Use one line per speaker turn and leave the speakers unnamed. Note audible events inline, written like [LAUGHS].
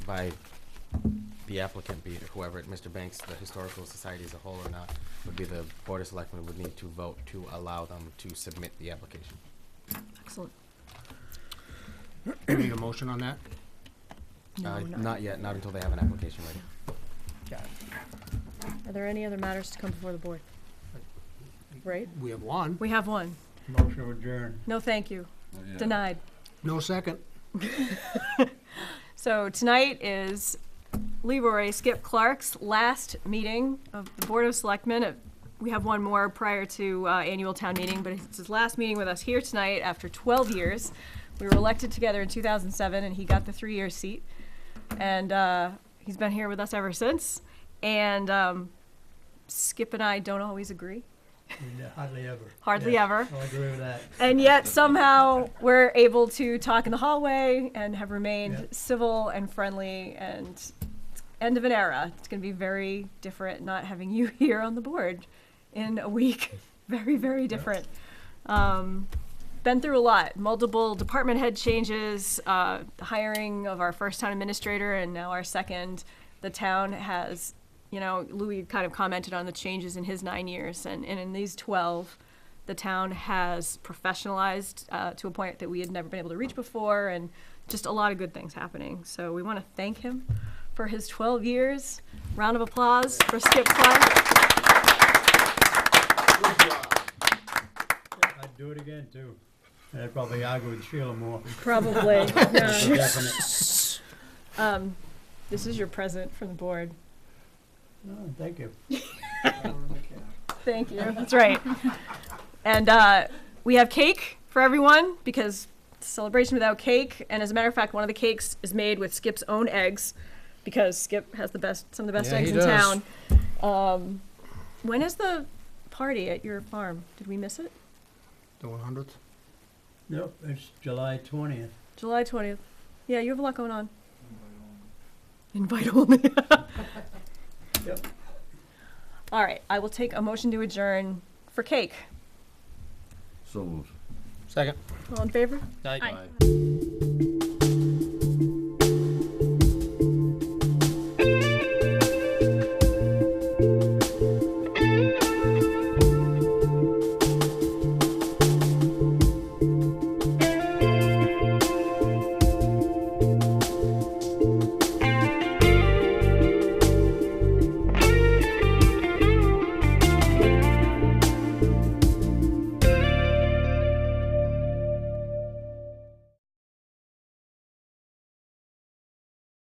by the applicant, be it whoever, it- Mr. Banks, the Historical Society as a whole or not, would be the Board of Selectmen would need to vote to allow them to submit the application.
Excellent.
We need a motion on that?
Uh,
No, not.
Not yet, not until they have an application ready.
Yeah.
Are there any other matters to come before the board? Right?
We have one.
We have one.
Motion adjourned.
No, thank you. Denied.
No second.
So tonight is Leroy Skip Clark's last meeting of the Board of Selectmen. Uh, We have one more prior to uh, annual town meeting, but it's his last meeting with us here tonight after 12 years. We were elected together in 2007, and he got the three-year seat. And uh, he's been here with us ever since. And um, Skip and I don't always agree,
Hardly ever.
hardly
Yeah, Oh,
ever.
I agree with that.
And yet somehow we're able to talk in the hallway and have remained
Yeah.
civil and friendly and it's end of an era. It's going to be very different not having you [LAUGHS] here on the board in a week. [LAUGHS] very, very different. Um, been through a lot, multiple department head changes, uh, the hiring of our first town administrator and now our second. The town has, you know, Louis kind of commented on the changes in his nine years and, and in these 12, the town has professionalized uh, to a point that we had never been able to reach before, and just a lot of good things happening. So we want to thank him for his 12 years. Round of applause for Skip Clark.
I'd do it again too. And I'd probably argue with Sheila more.
Probably.
Definite.
[LAUGHS] um, this is your present from the board.
No, Oh, thank you.
Thank you. [LAUGHS] That's right. And uh, we have cake for everyone because it's a celebration without cake. And as a matter of fact, one of the cakes is made with Skip's own eggs because Skip has the best, some of the best
Yeah,
eggs
he
in
does.
town. Um, when is the party at your farm? Did we miss it?
The one hundredth.
Nope, it's July twentieth.
July 20th. Yeah, you have a lot going on. Invite only.
Yep.
All right, I will take a motion to adjourn for cake.
So moved.
Second.
All in favor?